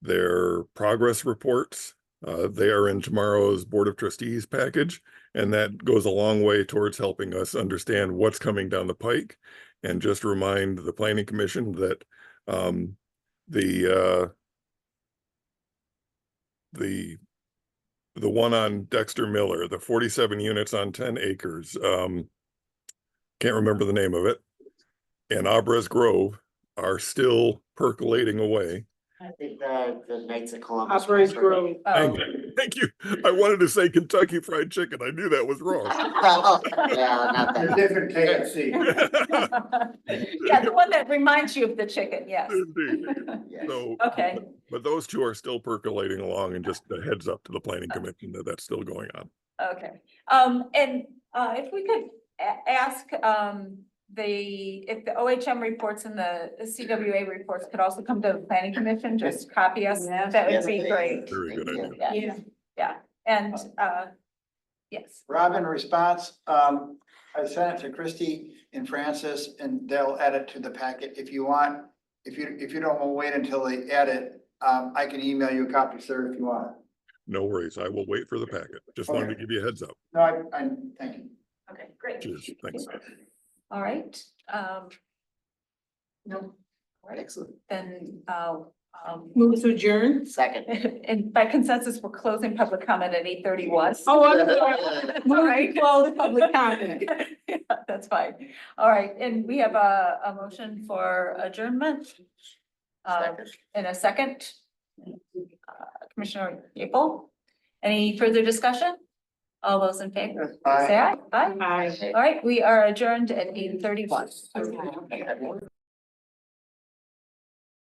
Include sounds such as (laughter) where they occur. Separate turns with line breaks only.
their progress reports. Uh, they are in tomorrow's Board of Trustees package, and that goes a long way towards helping us understand what's coming down the pike. And just remind the Planning Commission that um, the uh, the the one on Dexter Miller, the forty-seven units on ten acres, um, can't remember the name of it, and Abras Grove are still percolating away.
I think the, the Knights of Columbus.
Operates Grove.
Oh.
Oh.
Thank you. Thank you. I wanted to say Kentucky Fried Chicken. I knew that was wrong.
(laughs)
(laughs)
Well, Yeah, not
They're
that.
different KFC.
(laughs) Yeah, the one that reminds you of the chicken, yes. (laughs)
Indeed.
yeah.
So,
Okay,
but those two are still percolating along and just a heads up to the planning commission that that's still going on.
okay. Um, and, uh, if we could a- ask, um, the, if the OHM reports and the CWA reports could also come to the planning commission, just copy us,
Yes.
that would
Yes,
be
please.
great.
Very good
Thank you.
idea.
Yeah,
Yeah.
and, uh, yes,
Rob, in response, um, I sent it to Christie and Francis and they'll add it to the packet if you want. If you, if you don't want to wait until they add it, um, I can email you a copy, sir, if you want. it.
No worries. I will wait for the packet. Just wanted to give you a heads up.
No, I, I, thank you.
okay, great.
Cheers. Thanks.
All right, um. No, all right,
Excellent.
then, uh, um, (laughs)
Move to adjourn.
Second.
and by consensus, we're closing public comment at eight thirty-one.
Oh, (laughs) I'm sorry. Move to close public (laughs) comment.
(laughs) That's fine. All right, and we have a, a motion for adjournment. Uh,
Second.
in a second. Uh, Commissioner Yapel, any further discussion? All those in favor,
Bye.
say aye. Aye.
Aye.
All right, we are adjourned at eight thirty-one.
Okay.